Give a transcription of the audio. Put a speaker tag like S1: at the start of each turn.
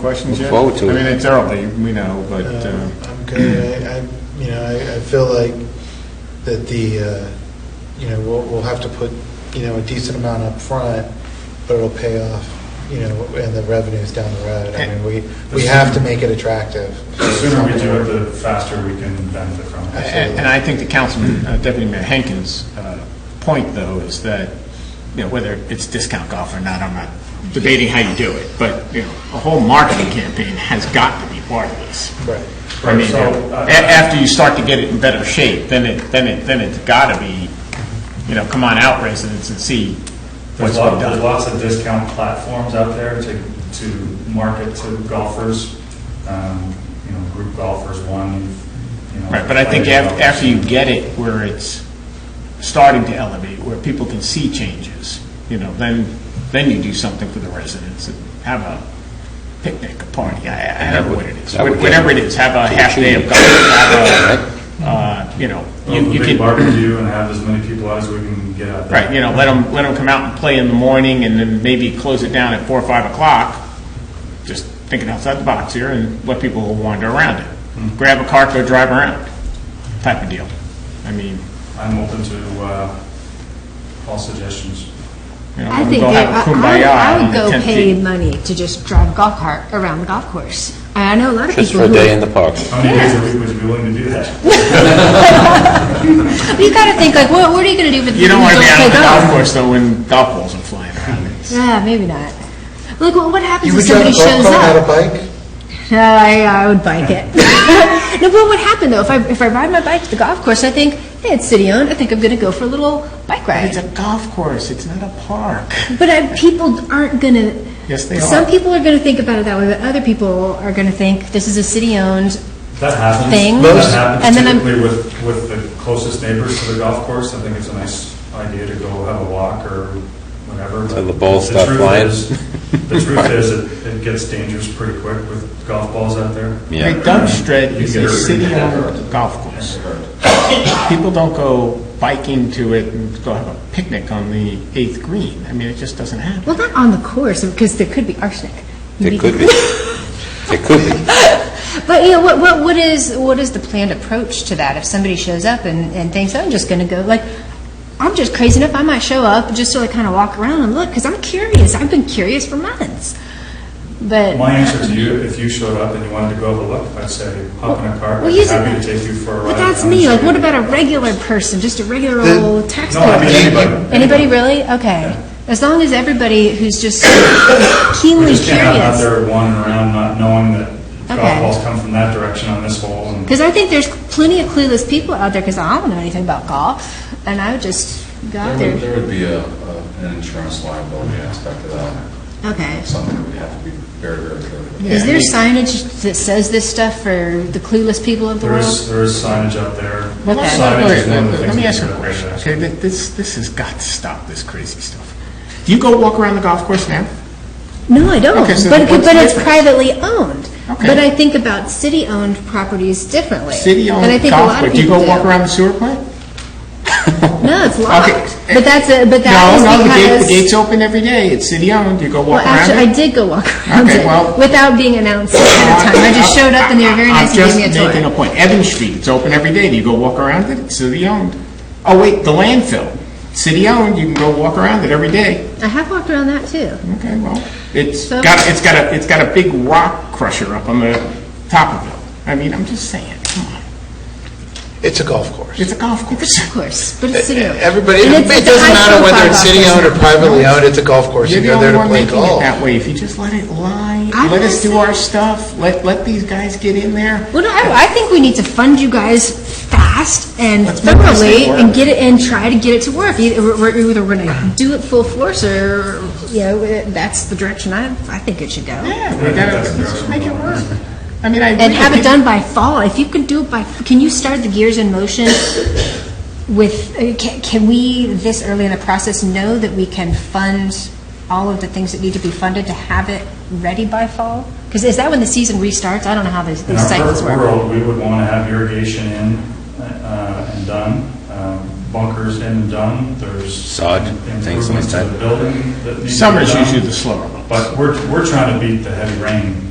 S1: questions yet?
S2: Forward to it.
S1: I mean, it's early, we know, but, uh,
S3: Um, I'm good. I, I- you know, I I feel like that the, uh, you know, we'll, we'll have to put, you know, a decent amount up front, but it'll pay off, you know, and the revenues down the road. I mean, we, we have to make it attractive.
S4: The sooner we do it, the faster we can benefit from
S1: a-
S4: it.
S1: and and I think the councilman, uh, Deputy Mayor Henkin's uh, point, though, is that, you know, whether it's discount golf or not, I'm not debating how you do it, but, you know, a whole marketing campaign has got to be part of this.
S3: Right.
S1: I mean,
S4: Right, so, uh,
S1: a- after you start to get it in better shape, then it, then it, then it's got to be, you know, come on out residents and see what's
S4: There's
S1: been
S4: lots, there's
S1: done.
S4: lots of discount platforms out there to, to market to golfers, um, you know, group golfers, one, you know.
S1: Right, but I think
S4: player
S1: af-
S4: golfers.
S1: after you get it where it's starting to elevate, where people can see changes, you know, then, then you do something for the residents, and have a picnic, a party, I, I don't know what it is.
S2: That would- that would-
S1: Whatever it is, have a half day of golf, have a, uh, you know,
S4: Well,
S1: you
S4: the
S1: you
S4: big
S1: can.
S4: barbecue and have as many people out as we can get out there.
S1: Right, you know, let them, come out and play in the morning, and then maybe close it down at four or five o'clock, just thinking outside the box here, and let people wander around it. Grab a cart, go drive around, type of deal. I mean,
S4: I'm open to, uh, all suggestions.
S1: you know,
S5: I
S1: we'll
S5: think,
S1: go
S5: they-
S1: have a
S5: I I-
S1: kumbaya
S5: I
S1: on
S5: would
S1: the
S5: go
S1: 10th
S5: pay
S1: tee.
S5: money to just drive golf cart around the golf course. I I know a lot of people.
S2: Just for a
S5: who-
S2: day in the park.
S4: How many days a week would you be willing to do that?
S5: You gotta think like, what, what are you gonna do with?
S1: You don't want to be out
S5: play
S1: on the golf
S5: golf?
S1: course, though, when golf balls are flying around. It's-
S5: Yeah, maybe not. Look, what what happens
S3: You
S5: if
S3: would drive a
S5: somebody
S3: golf
S5: shows
S3: cart without a
S5: up?
S3: bike?
S5: No, I, I would bike it. No, but what happened though, if I, if I ride my bike to the golf course, I think, hey, it's city owned, I think I'm gonna go for a little bike ride.
S1: It's a golf course, it's not a park.
S5: But I, people aren't gonna.
S1: Yes, they
S5: Some
S1: are.
S5: people are gonna think about it that way, but other people are gonna think this is a city-owned
S4: That happens.
S5: Thing.
S3: Most-
S4: That
S5: and
S4: happens
S5: then I'm-
S4: typically with, with the closest neighbors to the golf course. I think it's a nice idea to go have a walk or whatever.
S2: Till the balls
S4: balls
S2: stop flying.
S4: The truth is, it, it gets dangerous pretty quick with golf balls out there.
S2: Yeah.
S1: Great Dove Strait
S4: You
S1: is
S4: get
S1: a
S4: hurt.
S1: city-owned golf course. People don't go biking to it and go have a picnic on the eighth green. I mean, it just doesn't happen.
S5: Well, not on the course, because there could be arsenic.
S2: It could be. It could be.
S5: But, you know, what, what, what is, what is the planned approach to that? If somebody shows up and, and thinks, I'm just gonna go, like, I'm just crazy enough, I might show up just to like kind of walk around and look, because I'm curious. I've been curious for months. But,
S4: My answer to you, if you showed up and you wanted to go have a look, I'd say, hop in a car.
S5: well,
S4: I'd be
S5: here's the
S4: happy to
S5: thing.
S4: take you for a ride.
S5: But that's
S4: around
S5: me,
S4: the
S5: like, what
S4: city.
S5: about a regular person, just a regular
S3: The-
S5: old taxpayer?
S4: No, I mean anybody.
S5: Anybody really? Okay. As long as everybody who's just
S4: We
S5: keenly
S4: just can't have out
S5: curious.
S4: there wandering around not knowing that
S5: Okay.
S4: golf balls come from that direction on this hole and.
S5: Because I think there's plenty of clueless people out there, because I don't know anything about golf, and I would just go out
S6: There would,
S5: there.
S6: there would be a, a- an insurance liability aspect to that,
S5: Okay.
S6: something that we have to be very, very careful
S5: Is there signage that says this stuff for the clueless people of the
S4: There is,
S5: world?
S4: there is signage up there.
S5: Okay.
S4: Signage is one of the
S1: Let
S4: things
S1: me
S4: we
S1: ask you
S4: do
S1: a
S4: up
S1: question,
S4: there.
S1: okay? Th- This, this has got to stop, this crazy stuff. Do you go walk around the golf course now?
S5: No, I don't,
S1: Okay, so
S5: but,
S1: what's
S5: but
S1: the
S5: it's
S1: difference?
S5: privately owned.
S1: Okay.
S5: But I think about city-owned properties differently. And I
S1: City-owned
S5: think a
S1: golf
S5: lot of
S1: course, do you
S5: people
S1: go walk around the sewer plant?
S5: No, it's locked.
S1: Okay.
S5: But that's, a- but
S1: No, no, the
S5: that
S1: gate,
S5: is
S1: the
S5: because.
S1: gate's open every day, it's city-owned, you go
S5: Well,
S1: walk around
S5: actually, I
S1: it.
S5: did go walk around
S1: Okay, well-
S5: it without being announced ahead of time. I just showed up and they were very nice and gave me a
S1: I'm just making
S5: tour.
S1: a point, Evan Street, it's open every day, do you go walk around it? It's city-owned. Oh, wait, the landfill, city-owned, you can go walk around it every day.
S5: I have walked around that too.
S1: Okay, well, it's
S5: So-
S1: got, it's got a, it's got a big rock crusher up on the top of it. I mean, I'm just saying, come on,
S3: It's a golf course.
S1: it's a golf course.
S5: Of course, but it's city-owned.
S3: Eh, Everybody,
S5: And it's-
S3: it
S5: it's a
S3: doesn't matter whether
S5: high-profile
S3: it's
S5: golf
S3: city-owned or
S5: course.
S3: privately owned, it's a golf course.
S1: You're
S3: You
S1: the
S3: go there
S1: only one
S3: to play
S1: making it
S3: golf.
S1: that way, if you just let it lie,
S5: I'm
S1: let
S5: not
S1: us do
S5: saying-
S1: our stuff, let, let these guys get in there.
S5: Well, no, I, I think we need to fund you guys fast and
S1: Let's make this thing
S5: thoroughly and
S1: work.
S5: get it, and try to get it to work. Either we're, either we're gonna do it full force or, you know, that's the direction I, I think it should go.
S1: Yeah, we gotta, let's just make it work. I mean, I. agree
S5: And
S1: with
S5: have it
S1: you.
S5: done by fall. If you could do it by, can you start the gears in motion with, uh, can, can we, this early in the process, know that we can fund all of the things that need to be funded to have it ready by fall? Because is that when the season restarts? I don't know how these
S4: In
S5: these
S4: our
S5: cycles
S4: perfect
S5: work.
S4: world, we would want to have irrigation in uh, and done, um, bunkers in and done, there's.
S2: Sod, things like
S4: Improvements to
S2: that.
S4: the building that need to be
S1: Summer's
S4: done.
S1: usually the slower months.
S4: But we're, we're trying to beat the heavy rain